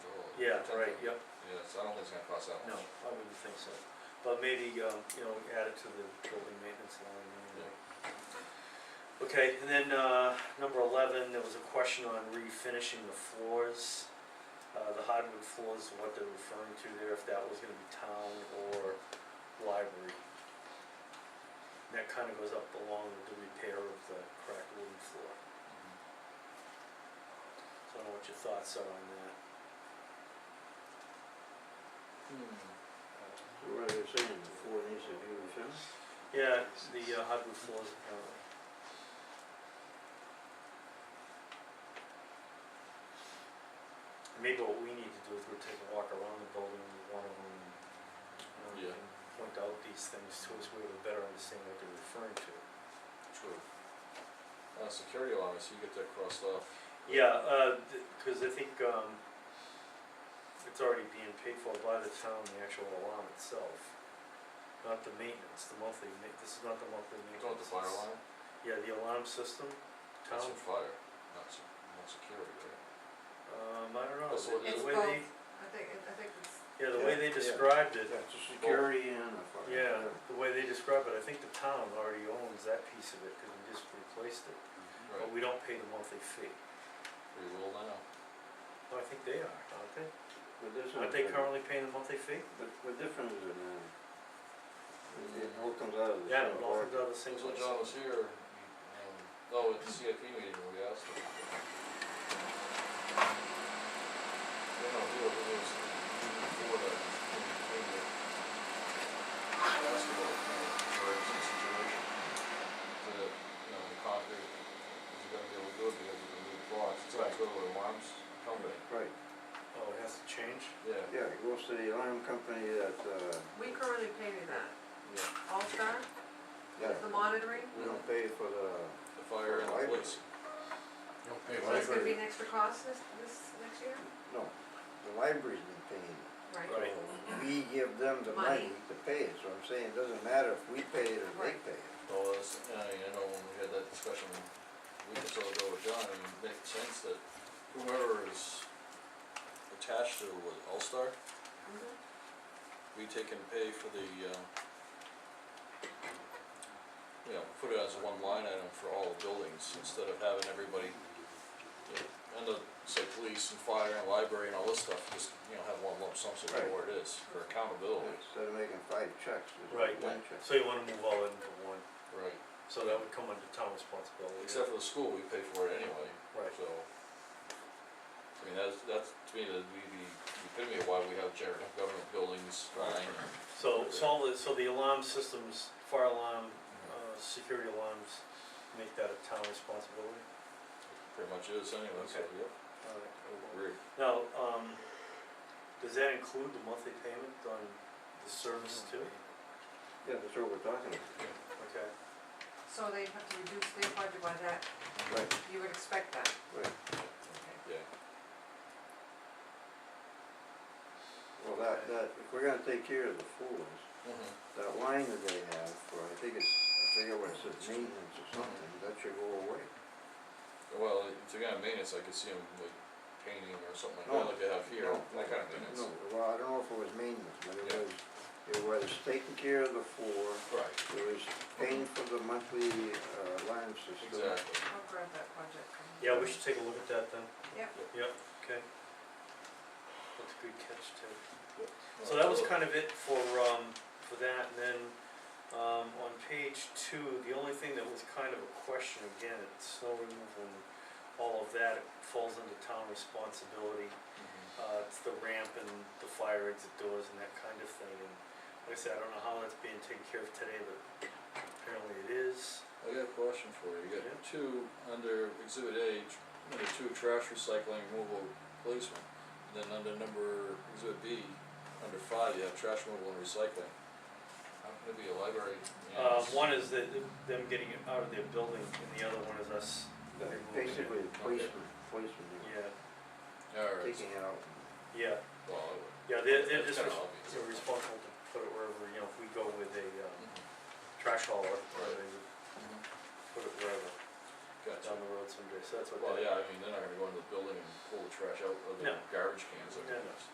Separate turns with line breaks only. I think.
right, yep,
Yeah, so I don't think it's gonna cost that
no,
much.
I wouldn't think so. But maybe, um, you know, add it to the building maintenance line anyway. Okay, and then, uh, number eleven, there was a question on refinishing the floors. Uh, the hardwood floors, what they're referring to there, if that was gonna be town or library. And That kinda goes up along with the repair of the cracked wooden floor.
Mhm.
So I don't know what your thoughts are on that. Hmm.
What are you saying, the four of these have you finished?
Yeah, it's the uh, hardwood floors apparently. Maybe what we need to do is go take a walk around the building, with one of them, you know,
Yeah.
and point out these things to us, we have a better understanding what they're referring to.
True. Uh, security alarms, you get that crossed off.
Yeah, uh, th- cause I think, um, it's already being paid for by the town, the actual alarm itself, not the maintenance, the monthly ma- this is not the monthly
You
maintenance.
don't have Oh, the fire alarm,
it's- Yeah, the alarm system, town.
that's for fire, not se- not security, right?
Um, I don't know,
That's what
the-
it
the
It's
way
both,
they,
I think, it- I think it's,
yeah, the way
Yeah,
they
yeah.
described it,
That's a security and a fire.
yeah, the way they describe it, I think the town already owns that piece of it, cause we just replaced it. But
Right,
we don't pay the monthly fee,
we will now.
no, I think they are, aren't they?
But this
Aren't
one,
they currently paying the monthly fee?
but what difference is it now? It it all comes out of the.
Mm-hmm. Yeah,
same
it all comes
pocket.
out of the same
Since when
place.
John was here, he, um, no, at the CIP meeting, we asked him. You know, he was, he was before that, when he came here. I asked him about, you know, emergency situation, to, you know, the concrete, is he gonna be able to do it because of the new blocks, it's like go to alarms company.
Right,
Oh, it has to change?
Yeah,
yeah, it goes to the alarm company that, uh,
we currently pay that,
yeah,
All-Star,
yeah,
the monitoring,
we don't pay for the,
the fire and the police.
Don't pay
so it's gonna be
library,
an extra cost this, this next year?
no, the library's been paying. it.
Right,
Right.
So We give them the money
Money.
to pay it, so I'm saying it doesn't matter if we pay it or they
Right.
pay it.
Well, that's, I mean, I uh, know when we had that discussion a week or so ago with John, I mean, it makes sense that whoever is attached to with All-Star,
Mhm.
we take and pay for the, uh, you know, put it as one line item for all buildings, instead of having everybody, you know, end up, say, police and fire and library and all this stuff, just, you know, have one lump sum, so we know where it is, for accountability.
Instead of making five checks, it's
Right.
one check.
So you wanna move all into one,
Right.
so that would come under town responsibility. yeah.
Except for the school, we pay for it anyway,
Right,
So, I mean, that's, that's, to me, that'd be the epitome of why we have general government buildings, fine,
so, so all the, so the alarm systems, fire alarm, uh, security alarms, make that a town responsibility?
pretty much is anyway, so,
Okay.
yep.
Alright,
Agree.
Now, um, does that include the monthly payment on the service too?
Yeah, that's what we're talking about.
Okay.
so they have to reduce their budget by that,
Right,
you would expect that,
right.
okay.
Yeah,
Well, that, that, if we're gonna take care of the floors,
mhm,
that line that they have for, I think it's, I forget what it says, maintenance or something, that should go away.
well, if they're gonna maintenance, I could see them like painting or something like
No,
that, like they have here,
No,
that kind of maintenance.
No, well, I don't know if it was maintenance, but it
Yeah.
was, it was taking care of the floor,
Right,
it was paying for the monthly, uh, alarm system.
exactly,
I'll grab that project. from you.
Yeah, we should take a look at that then.
Yep.
Yep, okay. That's a good catch too. So that was kind of it for, um, for that, and then, um, on page two, the only thing that was kind of a question, again, it's snow removal and all of that, it falls under town responsibility.
Mhm,
uh, it's the ramp and the fire exit doors and that kind of thing, and like I said, I don't know how that's being taken care of today, but apparently it is.
I got a question for you, you
Yeah.
got two under exhibit A, tr- number two, trash recycling removal replacement, and then under number, exhibit B, under five, you have trash removal and recycling. How can it be a library?
Uh,
maintenance?
one is that, them getting it out of their building, and the other one is us,
Like, Basically, the policeman, policeman, they
yeah,
were
Alright,
taking it out.
yeah,
well, I would-
yeah, they're, they're
that's
just,
kinda
res-
obvious.
they're responsible to put it wherever, you know, if we go with a, um,
Mhm,
trash hauler, or
Right.
they would
mhm.
Mm-hmm. put it wherever, down
Gotcha,
the road someday, so that's what
well,
they.
yeah, I mean, they're not gonna go into the building and pull the trash out of the
No.
garbage cans, like
Yeah,